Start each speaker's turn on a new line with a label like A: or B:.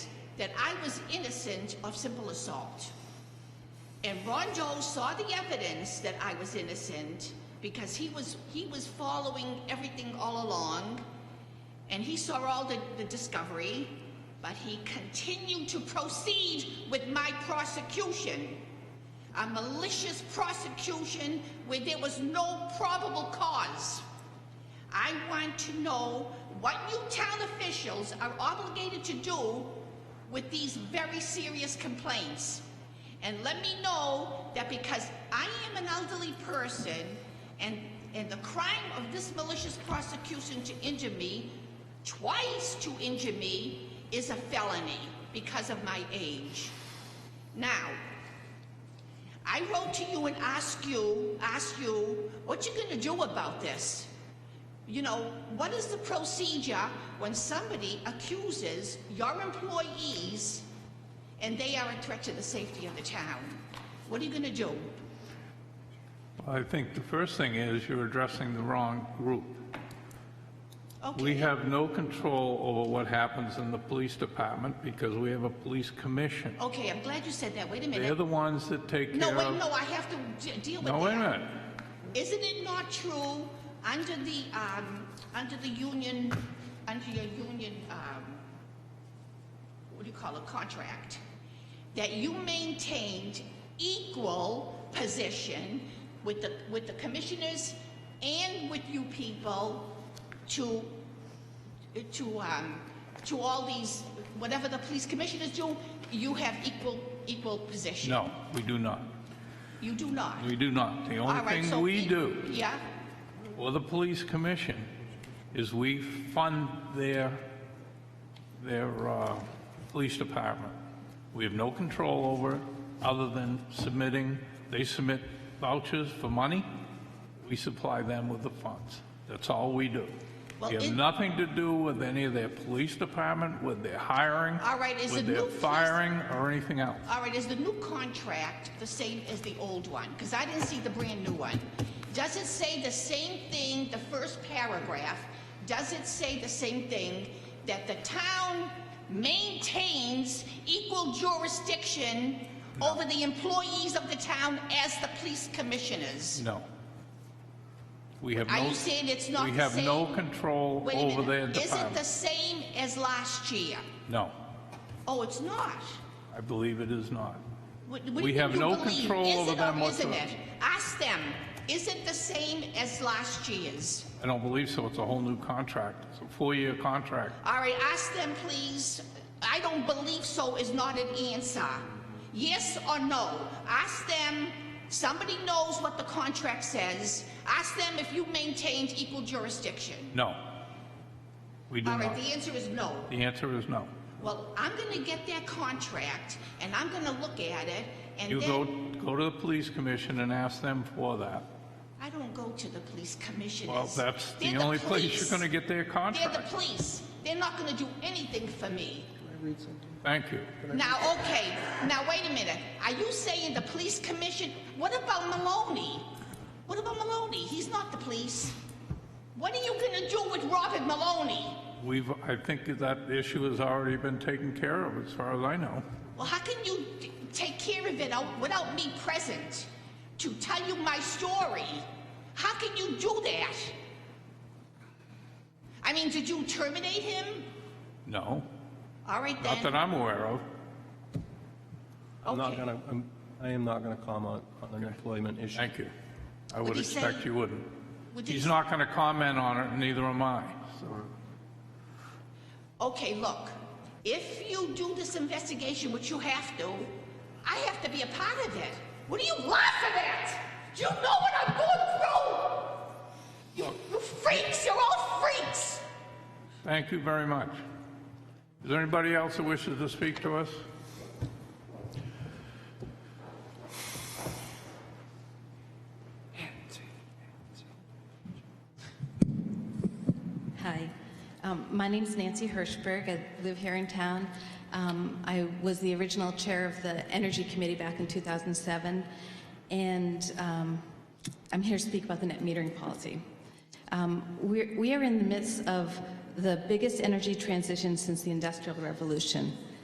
A: that I was innocent of simple assault. And Ron Joel saw the evidence that I was innocent because he was he was following everything all along, and he saw all the, the discovery, but he continued to proceed with my prosecution. A malicious prosecution where there was no probable cause. I want to know what you town officials are obligated to do with these very serious complaints. And let me know that because I am an elderly person and, and the crime of this malicious prosecution to injure me, twice to injure me, is a felony because of my age. Now, I wrote to you and asked you, asked you, what you gonna do about this? You know, what is the procedure when somebody accuses your employees and they are a threat to the safety of the town? What are you gonna do?
B: I think the first thing is you're addressing the wrong group. We
A: Okay,
B: have no control over what happens in the police department because we have a police commission.
A: okay, I'm glad you said that, wait a
B: They're
A: minute.
B: the ones that take
A: No,
B: care
A: wait,
B: of...
A: no, I have to de- deal with that.
B: No, wait a minute.
A: Isn't it not true, under the, um, under the union, under your union, um, what do you call it, contract, that you maintained equal position with the, with the commissioners and with you people to, to, um, to all these, whatever the police commissioners do, you have equal, equal position?
B: No, we do not.
A: You do not?
B: We do not. The
A: All
B: only
A: right, so
B: thing we
A: e-
B: do,
A: Yeah?
B: or the police commission, is we fund their, their uh, police department. We have no control over it, other than submitting, they submit vouchers for money, we supply them with the funds. That's all we do.
A: Well,
B: We have
A: it-
B: nothing to do with any of their police department, with their hiring,
A: All right, is
B: with
A: the
B: their
A: new police-
B: firing, or anything else.
A: All right, is the new contract the same as the old one? Because I didn't see the brand new one. Does it say the same thing, the first paragraph? Does it say the same thing, that the town maintains equal jurisdiction over the employees of the town as the police commissioners?
B: No. We have no...
A: Are you saying it's not
B: We
A: the
B: have no
A: same?
B: control
A: Wait a
B: over their
A: minute, is it the
B: department.
A: same as last year?
B: No,
A: Oh, it's not?
B: I believe it is not.
A: What- what do
B: We
A: you
B: have
A: think you
B: no
A: believe?
B: control
A: Is
B: over
A: it or
B: them
A: Isn't
B: whatsoever.
A: it? Ask them, is it the same as last year's?
B: I don't believe so. It's a whole new contract. It's a four-year contract.
A: All right, ask them, please. I don't believe so is not an answer. Yes or no? Ask them, somebody knows what the contract says. Ask them if you maintained equal jurisdiction.
B: No. We do
A: All
B: not.
A: right, the answer is no.
B: The answer is no.
A: Well, I'm gonna get that contract, and I'm gonna look at it, and
B: You go,
A: then...
B: go to the police commission and ask them for that.
A: I don't go to the police commissioners.
B: Well, that's the
A: They're
B: only place
A: police.
B: you're going to get their
A: They're the
B: contract.
A: police. They're not going to do anything for me.
B: Thank you.
A: Now, okay, now wait a minute. Are you saying the police commission? What about Maloney? What about Maloney? He's not the police. What are you going to do with Robert Maloney?
B: We've, I think that issue has already been taken care of, as far as I know.
A: Well, how can you t- take care of it out- without me present to tell you my story? How can you do that? I mean, did you terminate him?
B: No,
A: All right then.
B: not that I'm aware of.
C: I'm not
A: Okay.
C: gonna, I'm, I am not gonna comment on an employment issue.
B: Thank you. I
A: Would
B: would
A: he say-
B: expect you wouldn't.
A: Would you
B: He's
A: s-
B: not going to comment on it, neither am I.
A: okay, look, if you do this investigation, which you have to, I have to be a part of it. What are you laughing at? Do you know what I'm going through? You, you freaks, you're all freaks.
B: Thank you very much. Is there anybody else who wishes to speak to us?
D: Hi, um, my name's Nancy Hirschberg. I live here in town. Um, I was the original chair of the Energy Committee back in 2007, and um, I'm here to speak about the net metering policy. Um, we're, we are in the midst of the biggest energy transition since the Industrial Revolution.